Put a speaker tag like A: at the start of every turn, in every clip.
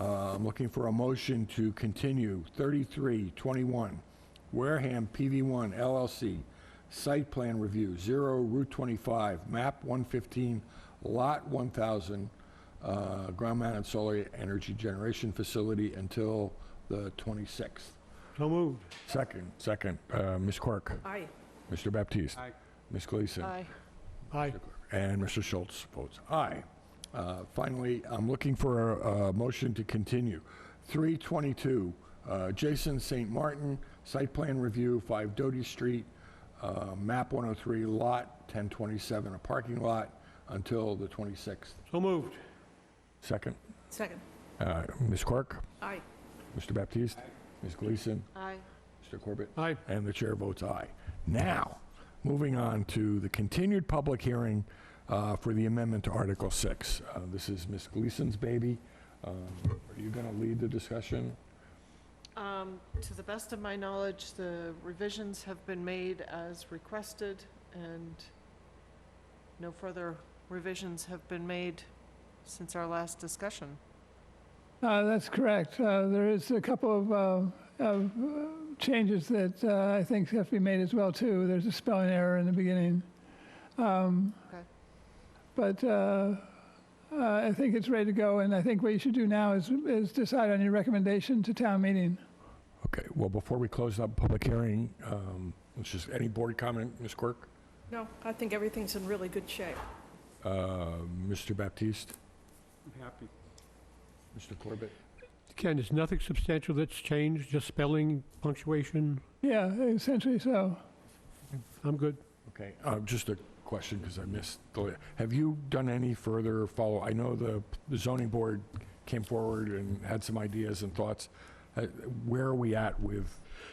A: Uh, I'm looking for a motion to continue 3321 Wareham PV1 LLC, site plan review, 0 Route 25, map 115, lot 1,000, uh, ground mounted solar energy generation facility until the 26th.
B: So moved.
A: Second. Second. Uh, Ms. Quirk.
C: Aye.
A: Mr. Baptiste.
B: Aye.
A: Ms. Gleason.
C: Aye.
B: Aye.
A: And Mr. Schultz votes aye. Uh, Finally, I'm looking for a a motion to continue. 322, uh, Jason St. Martin, site plan review, 5 Doty Street, uh, map 103, lot 1027, a parking lot until the 26th.
B: So moved.
A: Second,
C: Second.
A: Uh, Ms. Quirk,
C: Aye.
A: Mr. Baptiste, Ms. Gleason,
C: Aye.
A: Mr. Corbett.
B: Aye.
A: And the chair votes aye. Now, moving on to the continued public hearing uh, for the amendment to Article 6. Uh, This is Ms. Gleason's baby. Um, Are you going to lead the discussion?
C: Um, to the best of my knowledge, the revisions have been made as requested, and no further revisions have been made since our last discussion.
D: Uh, That's correct. Uh, There is a couple of, uh, of uh, changes that uh, I think have to be made as well, too. There's a spelling error in the beginning. Um,
C: Okay.
D: But uh, uh, I think it's ready to go, and I think what you should do now is, is decide on your recommendation to town meeting.
A: Okay, well, before we close up public hearing, um, let's just, any board comment, Ms. Quirk?
E: No, I think everything's in really good shape.
A: Uh, Mr. Baptiste?
B: I'm happy.
A: Mr. Corbett?
B: Ken, there's nothing substantial that's changed, just spelling, punctuation.
D: Yeah, essentially so.
B: I'm good.
A: Okay, uh, just a question, because I missed, the- have you done any further follow? I know the the zoning board came forward and had some ideas and thoughts. Uh, Where are we at with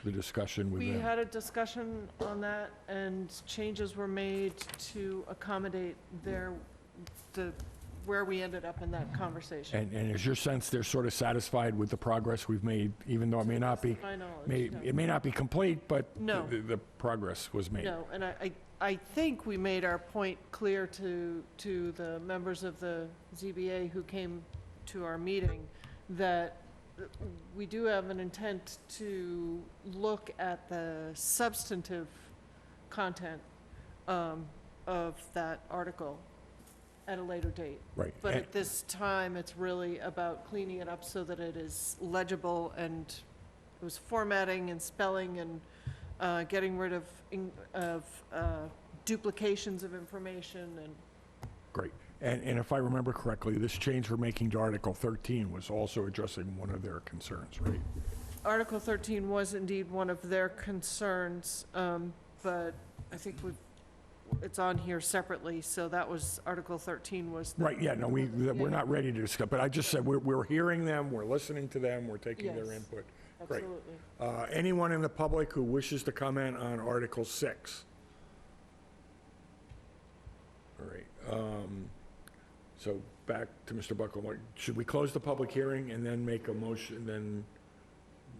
A: the discussion with
C: We
A: them?
C: had a discussion on that, and changes were made to accommodate their, the, where we ended up in that conversation.
A: And and is your sense they're sort of satisfied with the progress we've made, even though it may not be,
C: My
A: may-
C: knowledge, no.
A: it may not be complete, but
C: No.
A: the the progress was made?
C: No, and I, I I think we made our point clear to, to the members of the ZBA who came to our meeting, that we do have an intent to look at the substantive content um, of that article at a later date.
A: Right.
C: But
A: And-
C: at this time, it's really about cleaning it up so that it is legible and it was formatting and spelling and uh, getting rid of, in- of uh, duplications of information and,
A: Great. And and if I remember correctly, this change we're making to Article 13 was also addressing one of their concerns, right?
C: Article 13 was indeed one of their concerns, um, but I think we, it's on here separately, so that was, Article 13 was. the-
A: Right, yeah, no, we, th- we're
C: Yeah.
A: not ready to discuss, but I just said, we're, we're hearing them, we're listening to them, we're taking their
C: Yes.
A: input. Great.
C: Absolutely.
A: Uh, Anyone in the public who wishes to comment on Article 6? All right, um, so back to Mr. Buckle, Like, should we close the public hearing and then make a motion, then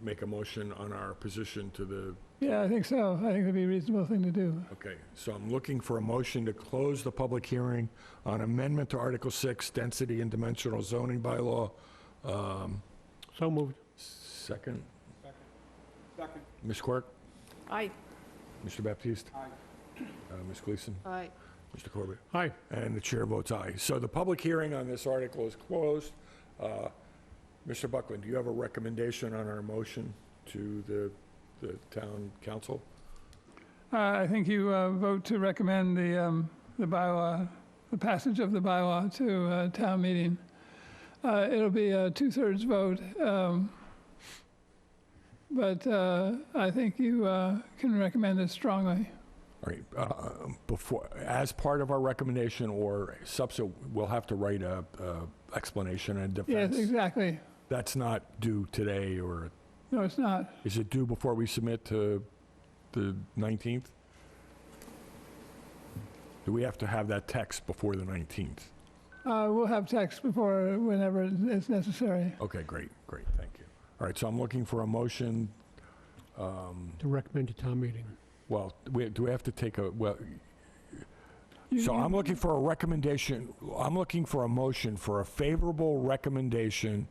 A: make a motion on our position to the,
D: Yeah, I think so. I think it'd be a reasonable thing to do.
A: okay, so I'm looking for a motion to close the public hearing on amendment to Article 6, density and dimensional zoning bylaw. Um,
B: So moved.
A: Second,
B: Second.
A: Ms. Quirk,
E: Aye.
A: Mr. Baptiste. Aye. Ms. Gleason,
C: Aye.
A: Mr. Corbett,
B: Aye.
A: and the chair votes aye. So the public hearing on this article is closed. Uh, Mr. Buckland, do you have a recommendation on our motion to the, the town council?
D: Uh, I think you uh, vote to recommend the, um, the bylaw, the passage of the bylaw to uh, town meeting. Uh, It'll be a two-thirds vote, um, but uh, I think you uh, can recommend it strongly.
A: All right, uh, before, as part of our recommendation or subsequent, we'll have to write a, a explanation and
D: Yes,
A: defense.
D: exactly.
A: That's not due today, or
D: No, it's not.
A: is it due before we submit to the 19th? Do we have to have that text before the 19th?
D: Uh, We'll have text before, whenever it's necessary.
A: Okay, great, great, thank you. All right, so I'm looking for a motion, um,
B: To recommend to town meeting.
A: well, we- do we have to take a, well,
D: You-
A: so
D: you-
A: I'm looking for a recommendation, I'm looking for a motion for a favorable recommendation